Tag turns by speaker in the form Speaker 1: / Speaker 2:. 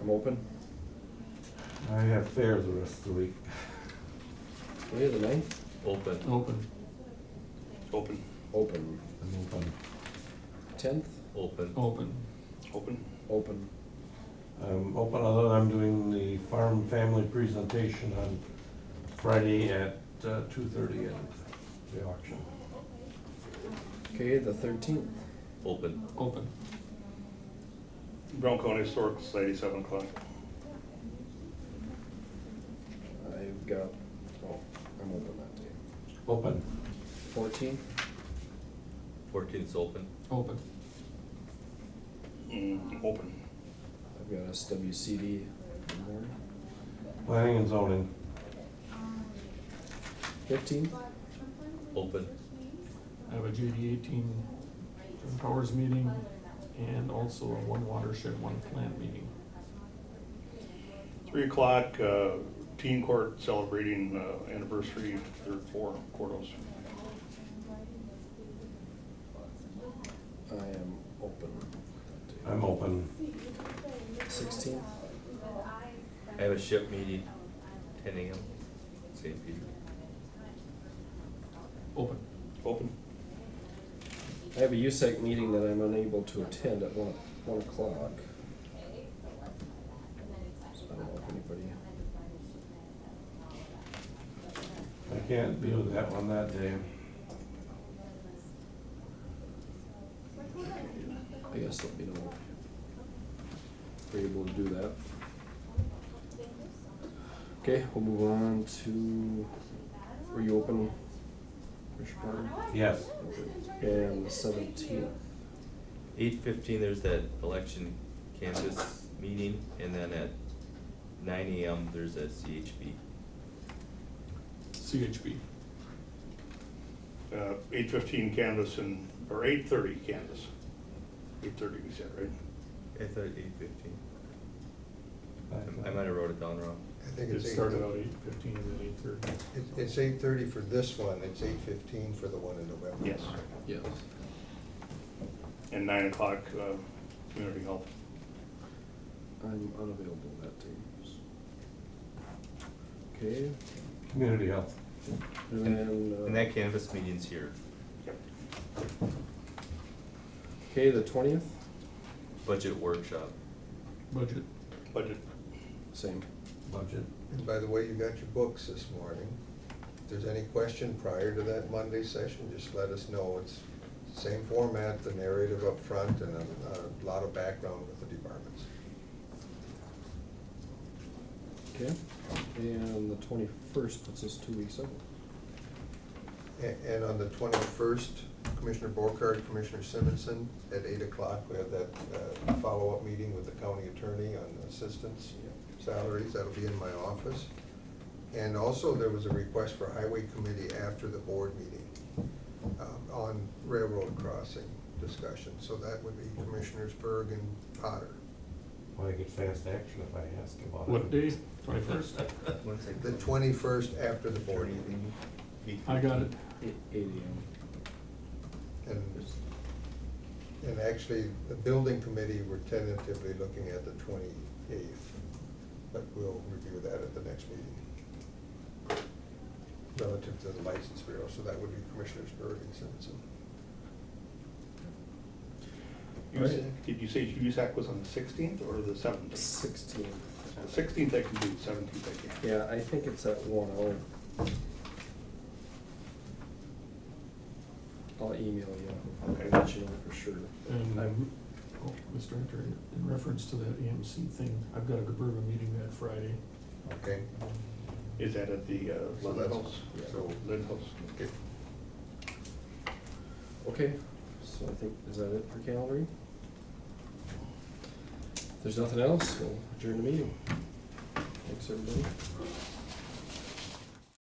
Speaker 1: I'm open.
Speaker 2: I have fair the rest of the week.
Speaker 1: What is the ninth?
Speaker 3: Open.
Speaker 4: Open.
Speaker 5: Open,
Speaker 1: Open.
Speaker 2: I'm open.
Speaker 1: Tenth?
Speaker 3: Open.
Speaker 4: Open.
Speaker 5: open,
Speaker 1: Open.
Speaker 2: I'm open, although I'm doing the farm family presentation on Friday at uh, two thirty at the auction.
Speaker 1: Okay, the thirteenth.
Speaker 3: Open.
Speaker 4: Open.
Speaker 5: Brown County Historical Society, seven o'clock.
Speaker 1: I've got, oh, I'm open that day.
Speaker 2: Open,
Speaker 1: Fourteenth?
Speaker 3: Fourteenth's open.
Speaker 4: Open.
Speaker 5: Mm, open,
Speaker 1: I've got SWCD in the morning.
Speaker 2: planning and zoning,
Speaker 1: Fifteenth?
Speaker 3: Open.
Speaker 4: I have a JD eighteen Twin Powers meeting and also a one watershed, one plant meeting.
Speaker 5: three o'clock, uh, teen court celebrating uh, anniversary, their four quarters.
Speaker 1: I am open that
Speaker 2: I'm open.
Speaker 1: day. Sixteenth?
Speaker 3: I have a ship meeting, ten AM, St. Peter.
Speaker 4: Open.
Speaker 5: Open,
Speaker 1: I have a USAC meeting that I'm unable to attend at one, one o'clock. So I don't know if anybody,
Speaker 2: I can't be with that one that day.
Speaker 1: I guess let me know if you're able to do that. Okay, we'll move on to, were you open? Commissioner Carter?
Speaker 2: Yes,
Speaker 1: And the seventeenth,
Speaker 3: Eight fifteen, there's that election campus meeting, and then at nine AM, there's that CHB.
Speaker 4: CHB.
Speaker 5: uh, eight fifteen canvas and, or eight thirty canvas. Eight thirty, we said, right?
Speaker 3: I thought eight fifteen.
Speaker 2: I
Speaker 3: I might have wrote it down wrong.
Speaker 6: I think
Speaker 4: It
Speaker 6: it's eight,
Speaker 4: started out eight fifteen and then eight thirty.
Speaker 6: it- it's eight thirty for this one, it's eight fifteen for the one in November.
Speaker 5: Yes,
Speaker 1: yes.
Speaker 5: and nine o'clock, uh, community health.
Speaker 1: I'm unavailable that day. Okay,
Speaker 2: community health.
Speaker 1: and then, uh.
Speaker 3: And that canvas meeting's here,
Speaker 5: Yep.
Speaker 1: Okay, the twentieth,
Speaker 3: budget workshop.
Speaker 4: Budget.
Speaker 5: Budget,
Speaker 1: same.
Speaker 2: Budget.
Speaker 6: And by the way, you got your books this morning. If there's any question prior to that Monday session, just let us know. It's same format, the narrative up front and a, a lot of background with the departments.
Speaker 1: Okay, and the twenty-first puts us two weeks out.
Speaker 6: And, and on the twenty-first, Commissioner Borkard, Commissioner Simonson, at eight o'clock, we have that, uh, follow-up meeting with the county attorney on assistance salaries, that'll be in my office. And also, there was a request for highway committee after the board meeting, um, on railroad crossing discussion, so that would be Commissioners Berg and Potter.
Speaker 2: Well, I get fast action if I ask about it.
Speaker 4: What day? Twenty-first?
Speaker 3: One second.
Speaker 6: The twenty-first after the board meeting,
Speaker 3: Eight
Speaker 4: I got it.
Speaker 1: Eight AM.
Speaker 6: and And actually, the building committee, we're tentatively looking at the twenty-eighth, but we'll review that at the next meeting. Relative to the license bureau, so that would be Commissioners Berg and Simpson.
Speaker 5: You said- did you say USAC was on the sixteenth or the seventeenth?
Speaker 1: Sixteenth.
Speaker 5: Sixteenth I can do, seventeenth I can't.
Speaker 1: Yeah, I think it's at one oh. hour. I'll email you.
Speaker 5: Okay.
Speaker 1: Let you know for sure.
Speaker 4: And,
Speaker 1: I'm-
Speaker 4: oh, Mr. Hunter, in reference to that AMC thing, I've got a Gerberga meeting that Friday.
Speaker 6: Okay,
Speaker 5: Is that at the uh,
Speaker 6: So
Speaker 5: Lynn
Speaker 6: that's-
Speaker 5: House?
Speaker 6: yeah.
Speaker 5: So Lynn House.
Speaker 6: okay.
Speaker 1: Okay, so I think, is that it for Calvary? If there's nothing else, we'll adjourn the meeting. Thanks, everybody.